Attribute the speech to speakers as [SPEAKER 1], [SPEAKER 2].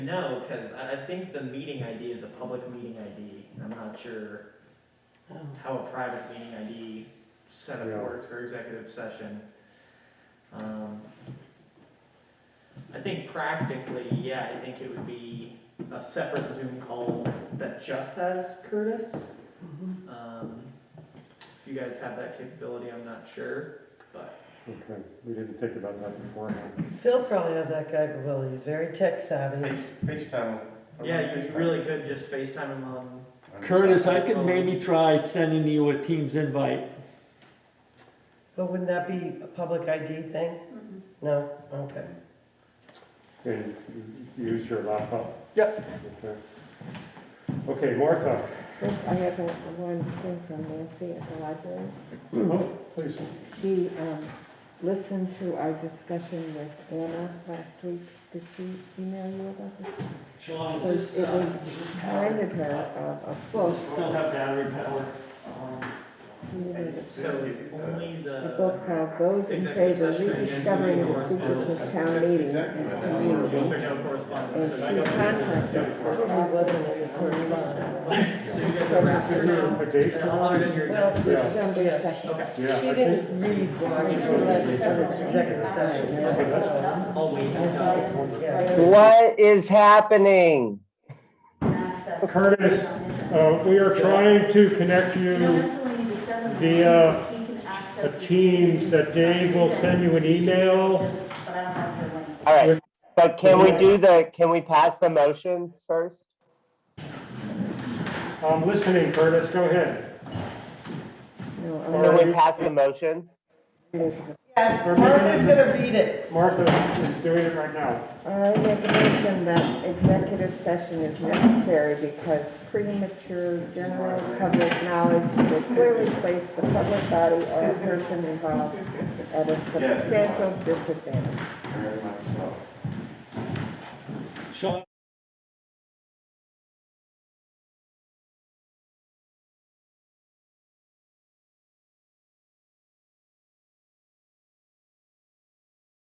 [SPEAKER 1] No, because I, I think the meeting ID is a public meeting ID, and I'm not sure how a private meeting ID setup
[SPEAKER 2] Yeah.
[SPEAKER 1] works for executive session. Um, I think practically, yeah, I think it would be a separate Zoom call that just has Curtis. Um, if you guys have that capability, I'm not sure, but
[SPEAKER 2] Okay, we didn't think about that beforehand.
[SPEAKER 3] Phil probably has that capability, he's very tech savvy.
[SPEAKER 4] Face- FaceTime. I'm
[SPEAKER 1] yeah,
[SPEAKER 4] on
[SPEAKER 1] you
[SPEAKER 4] FaceTime.
[SPEAKER 1] really could just FaceTime him on,
[SPEAKER 4] I'm
[SPEAKER 5] Curtis,
[SPEAKER 4] sorry.
[SPEAKER 5] I could maybe try sending you a Teams invite.
[SPEAKER 3] But wouldn't that be a public ID thing? No, okay.
[SPEAKER 2] And you use your laptop?
[SPEAKER 5] Yep.
[SPEAKER 2] Okay. Okay, Martha,
[SPEAKER 6] Yes, I have a a one thing from Nancy at the library.
[SPEAKER 2] oh, please.
[SPEAKER 6] She um, listened to our discussion with Anna last week. Did she email you about this?
[SPEAKER 5] Sean,
[SPEAKER 6] So it reminded her uh, of, of, well,
[SPEAKER 5] Still have battery power.
[SPEAKER 6] she needed it.
[SPEAKER 1] so it's only
[SPEAKER 6] a
[SPEAKER 1] the.
[SPEAKER 6] book called Those in
[SPEAKER 1] Executive
[SPEAKER 6] Favor
[SPEAKER 1] session and
[SPEAKER 6] Rediscovering the
[SPEAKER 1] Correspondence.
[SPEAKER 6] Secrets of Town
[SPEAKER 4] That's
[SPEAKER 6] Meeting.
[SPEAKER 4] exactly what I mean.
[SPEAKER 6] and
[SPEAKER 1] Well,
[SPEAKER 6] Community.
[SPEAKER 1] there's no correspondence,
[SPEAKER 6] And
[SPEAKER 1] so
[SPEAKER 6] she
[SPEAKER 1] I don't-
[SPEAKER 6] contacted us
[SPEAKER 3] Probably wasn't
[SPEAKER 6] after
[SPEAKER 3] a
[SPEAKER 6] the
[SPEAKER 3] correspondence.
[SPEAKER 6] meeting.
[SPEAKER 1] So you guys are wrapped
[SPEAKER 2] Is
[SPEAKER 1] here
[SPEAKER 2] there
[SPEAKER 1] now?
[SPEAKER 2] a date?
[SPEAKER 1] And I'll honor your
[SPEAKER 3] Well,
[SPEAKER 1] executive.
[SPEAKER 2] Yeah.
[SPEAKER 6] December second.
[SPEAKER 1] Okay,
[SPEAKER 2] Yeah,
[SPEAKER 3] she
[SPEAKER 2] I think,
[SPEAKER 3] didn't read what
[SPEAKER 2] I
[SPEAKER 3] she
[SPEAKER 2] think
[SPEAKER 3] was
[SPEAKER 2] so.
[SPEAKER 3] for executive session,
[SPEAKER 2] Okay, that's-
[SPEAKER 3] yeah,
[SPEAKER 1] I'll wait.
[SPEAKER 3] so, yeah.
[SPEAKER 7] What is happening?
[SPEAKER 2] Curtis, uh, we are trying to connect you via a Teams that Dave will send you an email.
[SPEAKER 7] All right, but can we do the, can we pass the motions first?
[SPEAKER 2] I'm listening, Curtis, go ahead.
[SPEAKER 6] No, I'm
[SPEAKER 7] Can we pass the motions?
[SPEAKER 6] not-
[SPEAKER 3] Yes, Martha's gonna read it.
[SPEAKER 2] Martha is doing it right now.
[SPEAKER 6] I make a motion that executive session is necessary because premature general public knowledge would clearly place the public body or a person involved at a substantial disadvantage.
[SPEAKER 4] Very much so.
[SPEAKER 5] Sean,